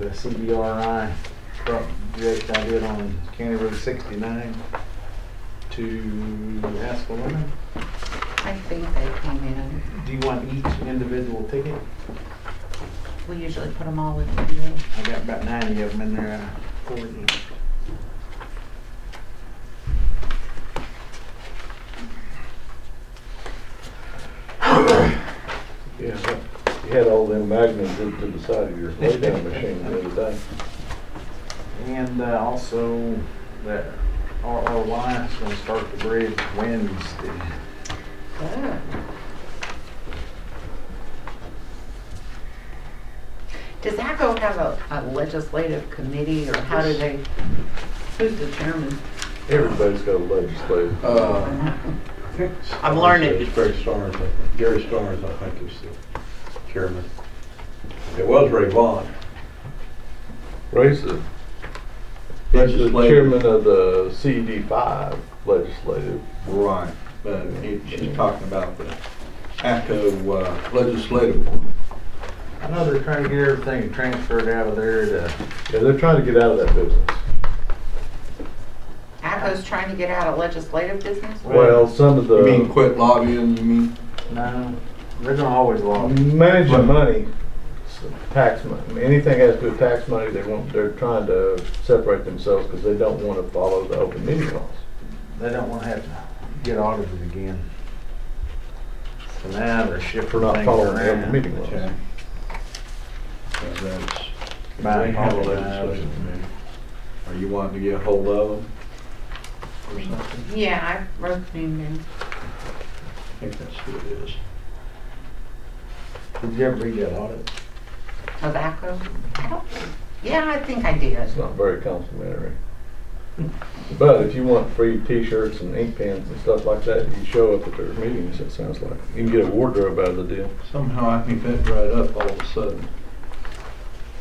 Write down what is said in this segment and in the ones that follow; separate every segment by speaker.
Speaker 1: the E CBRI project I did on County Road 69 to Askalona.
Speaker 2: I think they came in.
Speaker 1: Do you want each individual ticket?
Speaker 2: We usually put them all with you.
Speaker 1: I got about 90 of them in there. I forwarded them.
Speaker 3: Yeah, you had all them magnets hooked to the side of your laydown machine the other day.
Speaker 1: And uh, also that RRY is going to start the bridge Wednesday.
Speaker 2: Does ACO have a a legislative committee or how do they, who's the chairman?
Speaker 3: Everybody's got a legislative.
Speaker 4: Uh,
Speaker 2: I'm learning.
Speaker 4: It's Gary Starnes, I think. Gary Starnes, I think, is the chairman. It was Ray Vaughn.
Speaker 3: Ray's the, he's the
Speaker 4: Legislative.
Speaker 3: chairman of the CD five legislative.
Speaker 4: Right. But it- she's Uh, talking about the ACO uh, legislative one.
Speaker 1: I know they're trying to get everything transferred out of there to,
Speaker 3: Yeah, they're trying to get out of that business.
Speaker 2: ACO's trying to get out of legislative business?
Speaker 3: Well, some of
Speaker 4: You mean
Speaker 3: the
Speaker 4: quit lobbying, you mean?
Speaker 1: no, they're going to always log.
Speaker 3: managing money, s- tax money, anything has to do with tax money, they want, they're trying to separate themselves because they don't want to follow the open meeting laws.
Speaker 1: They don't want to have to get audited again. So now they're shifting
Speaker 3: For not
Speaker 1: things
Speaker 3: following the open
Speaker 1: around.
Speaker 3: meeting laws.
Speaker 4: Okay. So that's-
Speaker 1: By
Speaker 4: They have a
Speaker 1: apologize.
Speaker 4: legislative committee. Are you wanting to get hold of them? Or something?
Speaker 2: Yeah, I wrote the name down.
Speaker 4: I think that's who it is.
Speaker 1: Did you ever read that audit?
Speaker 2: Of ACO? I don't, yeah, I think I did.
Speaker 3: It's not very complimentary. But if you want free t-shirts and ink pens and stuff like that, you show up at their meetings, it sounds like. You can get a wardrobe out of the deal.
Speaker 4: Somehow I think that dried up all of a sudden.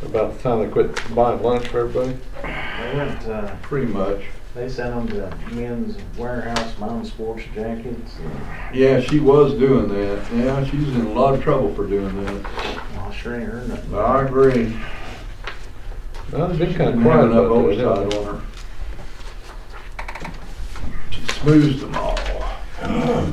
Speaker 3: About the time they quit buying lunch for everybody.
Speaker 1: They went, uh,
Speaker 4: Pretty much.
Speaker 1: they sent them to men's warehouse, mom's sports jackets. and-
Speaker 4: Yeah, she was doing that. Yeah, she's in a lot of trouble for doing that.
Speaker 1: Well, I sure ain't heard nothing.
Speaker 4: I agree.
Speaker 3: No, they've been
Speaker 4: She
Speaker 3: kind
Speaker 4: didn't
Speaker 3: of quiet
Speaker 4: have enough
Speaker 3: about that.
Speaker 4: oversight
Speaker 3: haven't
Speaker 4: on her. She smooths them all.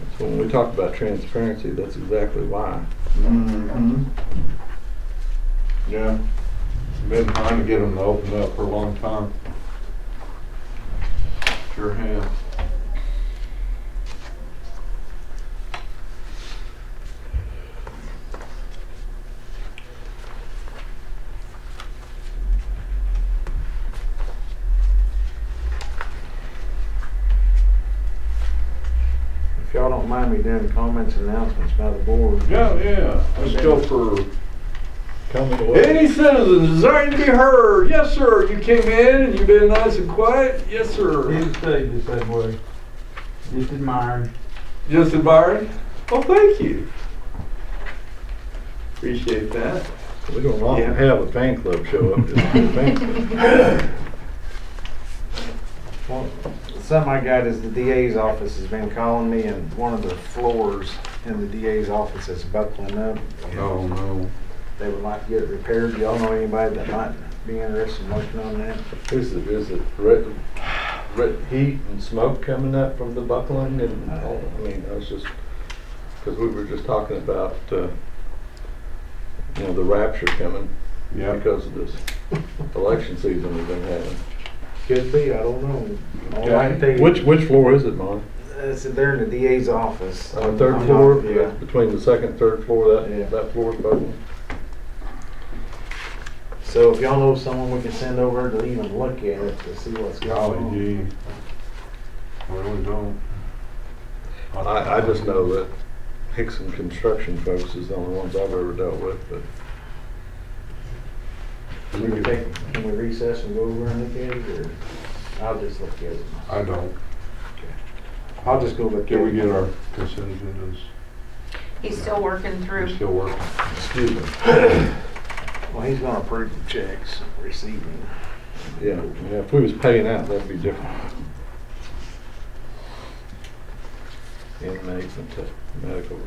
Speaker 3: they? So when we talk about transparency, that's exactly why.
Speaker 4: Mm-hmm. Yeah. Been trying to get them to open up for a long time. Sure have.
Speaker 1: If y'all don't mind me doing comments and announcements by the board.
Speaker 4: Yeah, yeah. Let's go for
Speaker 3: Coming away.
Speaker 4: Any citizens desiring to be heard? Yes, sir. You came in and you've been nice and quiet? Yes, sir.
Speaker 1: stay the same way. Just admiring.
Speaker 4: Justin Byron? Well, thank you. Appreciate that.
Speaker 3: We don't often
Speaker 1: Yeah.
Speaker 3: have a fan club show up just to be a fan club.
Speaker 1: Well, something I got is the DA's office has been calling me and one of the floors in the DA's office is buckling up.
Speaker 4: Oh, no.
Speaker 1: They would like to get it repaired. Do y'all know anybody that might be interested in working on that?
Speaker 3: Is it, is it red, red heat and smoke coming up from the buckling and
Speaker 1: Uh,
Speaker 3: all, I mean, I was just, because we were just talking about, uh, you know, the rapture coming
Speaker 4: Yep.
Speaker 3: because of this election season we've been having.
Speaker 1: Could be, I don't know. All I can tell you-
Speaker 3: Which, which floor is it, Mon?
Speaker 1: Uh, so They're in the DA's office.
Speaker 3: On the Uh, third
Speaker 1: Uh, I'm not-
Speaker 3: floor,
Speaker 1: Yeah.
Speaker 3: between the second, and third floor,
Speaker 1: Yeah.
Speaker 3: that, that floor is buckling?
Speaker 1: So if y'all know someone we can send over to even look at it to see what's going
Speaker 4: Golly
Speaker 1: on.
Speaker 4: gee. Really don't.
Speaker 3: I, I just know that Hickson Construction folks is the only ones I've ever dealt with, but
Speaker 1: Can we take- can we recess and go over and look at it or I'll just look at it?
Speaker 4: I don't.
Speaker 1: I'll just go look at it.
Speaker 4: Can we get our consent agendas?
Speaker 2: He's still working
Speaker 4: We're
Speaker 2: through.
Speaker 4: still working.
Speaker 3: excuse me,
Speaker 1: Well, he's gonna approve the checks receiving.
Speaker 3: yeah, yeah, if we was paying out, that'd be different. inmates and to medical